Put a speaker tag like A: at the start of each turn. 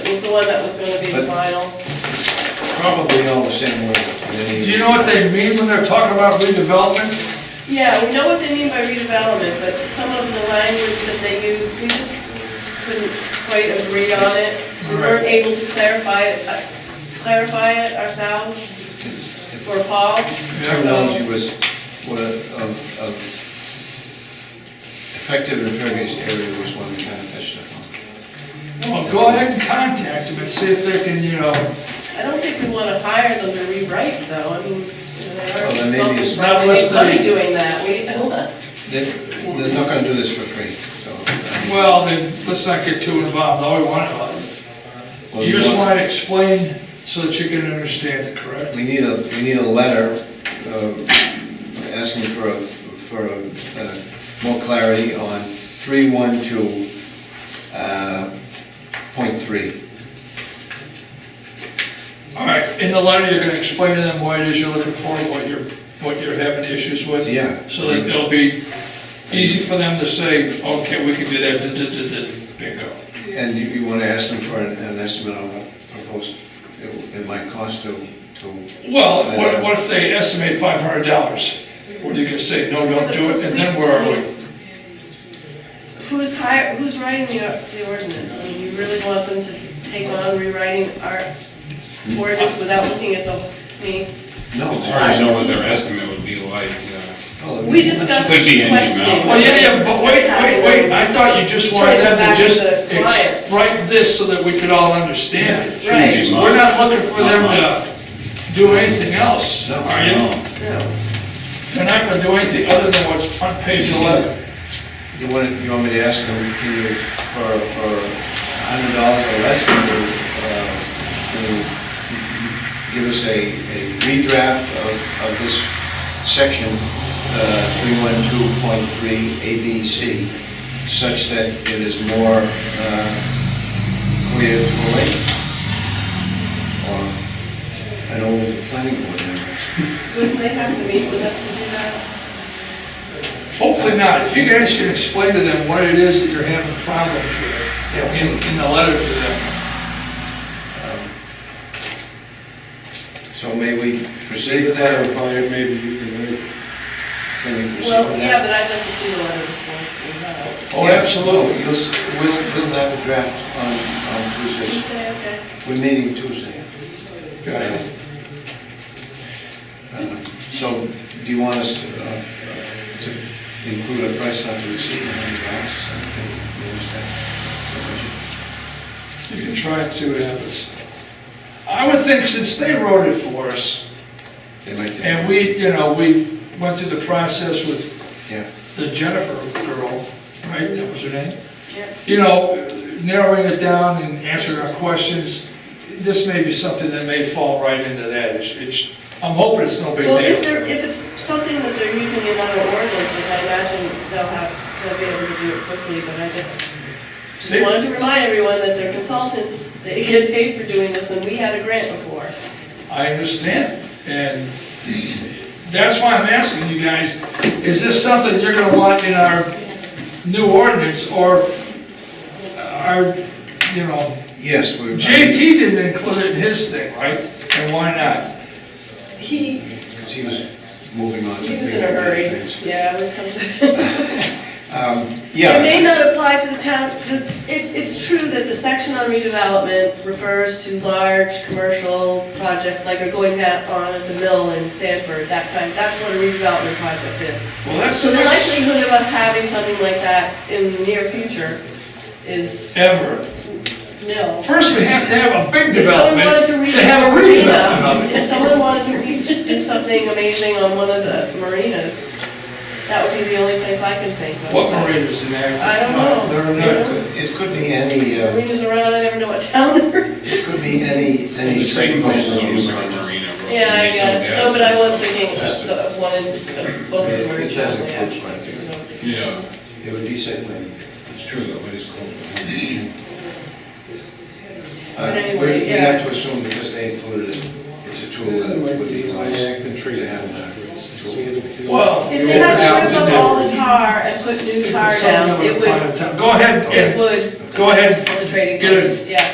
A: was the one that was gonna be the
B: But-
A: final.
B: Probably all the same way.
C: Do you know what they mean when they're talking about redevelopment?
A: Yeah, we know what they mean by redevelopment, but some of the language that they use, we just couldn't quite agree on it. We weren't able to clarify it, uh, clarify it ourselves
B: If
A: for Paul.
B: Terminology was, was of, of effective impervious area was one we kind of touched upon.
C: Well, go ahead and contact them and see if they can, you know,
A: I don't think we wanna hire them to rewrite though, I mean, you know, there are
B: Well, then maybe
A: consultants,
B: it's-
A: but
C: Not
A: they love
C: listed.
A: doing that, we,
B: They, they're not gonna do this for free, so. I mean,
C: well, then, let's not get too involved, all we want to,
B: well,
C: you just
B: want-
C: want to explain so that you can understand it, correct?
B: We need a, we need a letter uh, asking for, a- for uh, more clarity on 312, uh, point three.
C: All right, in the letter, you're gonna explain to them why it is you're looking for, what you're, what you're having issues with.
B: Yeah.
C: So that it'll be easy for them to say, okay, we can do that, da, da, da, da, bingo.
B: And you- you want to ask them for an an estimate on what proposed, it it might cost to, to...
C: Well, what, what if they estimate five hundred dollars? What are you gonna say, no, don't do it, and then where are we?
A: Who's hire, who's writing the, the ordinance? I mean, you really want them to take on rewriting our ordinance without looking at the, I mean,
B: No.
D: It's hard to know what their estimate would be like. uh,
B: Well,
A: we discussed
D: Could be
A: questioning.
D: in the amount.
C: Well, Oh, yeah, yeah, but wait, wait, wait, I thought you just wanted them to just ex- write this so that we could all understand it.
A: Right.
D: Shouldn't be much.
C: We're not looking for them to do anything else,
B: No.
C: are you? They're not gonna do anything other than what's on page eleven.
B: You want, you want me to ask them, can you, for, for a hundred dollars or less, can you, uh, can you give us a, a redraft of, of this section, uh, three one two point three A B C, such that it is more, uh, clear to the lake? Or an old planning board member?
A: Wouldn't they have to meet with us to do that?
C: Hopefully not, if you guys can explain to them what it is that you're having problems with in, in the letter to them.
B: So may we proceed with that, or fire, maybe you can, read it? can we proceed
A: Well,
B: with that?
A: yeah, but I'd like to see the letter before we do that.
C: Oh,
B: Yeah,
C: absolutely.
B: We'll, we'll we'll have a draft on, on
A: Did you
B: Tuesday.
A: say, okay?
B: We're meeting Tuesday.
C: Got it.
B: Uh, So do you want us to, uh, uh, to include a price not to exceed a hundred dollars or something? You understand?
C: You can try and see what happens. I would think since they wrote it for us,
B: They might take.
C: and we, you know, we went through the process with
B: Yeah.
C: the Jennifer girl, right, that was her name?
A: Yeah.
C: You know, narrowing it down and answering our questions, this may be something that may fall right into that. It's- It's, I'm hoping it's no big
A: Well, if
C: deal.
A: they're, if it's something that they're using in other ordinances, I imagine they'll have, they'll be able to do it quickly, but I just, just
C: They-
A: wanted to remind everyone that they're consultants, they get paid for doing this, and we had a grant before.
C: I understand, and that's why I'm asking you guys, is this something you're gonna want in our new ordinance, or our, you know,
B: Yes, we're.
C: JT didn't include it in his thing, right? And why not?
A: He,
B: Because he was moving on to.
A: he was in a hurry,
B: things.
A: yeah, we come to. It
B: Yeah,
A: may not apply to the town, the- it, it's true that the section on redevelopment refers to large commercial projects like are going that on at the mill in Sanford, that kind, that's what a redevelopment project is.
C: Well, that's,
A: So the
C: that's
A: likelihood of us having something like that in the near future is
C: ever.
A: nil.
C: First, we have to have a big
A: If someone
C: development
A: wanted to re-
C: to have a redevelopment
A: marina, If someone wanted to re- do something amazing on one of the marinas, that would be the only place I can think of.
C: What marinas in there?
A: I don't know.
B: Uh, there are
A: You
B: no-
A: know?
B: it could be any, uh,
A: Marinas around, I never know what town they're in.
B: it could be any, any.
D: The same place as
B: subdivision
D: almost like a
B: project.
D: marina. road,
A: Yeah, I
D: maybe some
A: guess, no,
D: gas
A: but I
D: or
A: was
D: something.
A: thinking of
B: Just
A: the of one in, of both of them are in Chelsea, actually.
D: Yeah,
B: It would be site plan.
D: it's true though, it is close.
B: Uh,
A: But
B: We
A: anyway,
B: we
A: yeah,
B: have to
A: it's-
B: assume because they included it, it's a tool that would be nice to have. that tool.
C: Well.
A: If they had stripped up all the tar and put new tar down, it would,
C: Go ahead,
A: it
C: and-
A: would
C: go ahead.
A: for the trading
C: Get it.
A: post, yeah.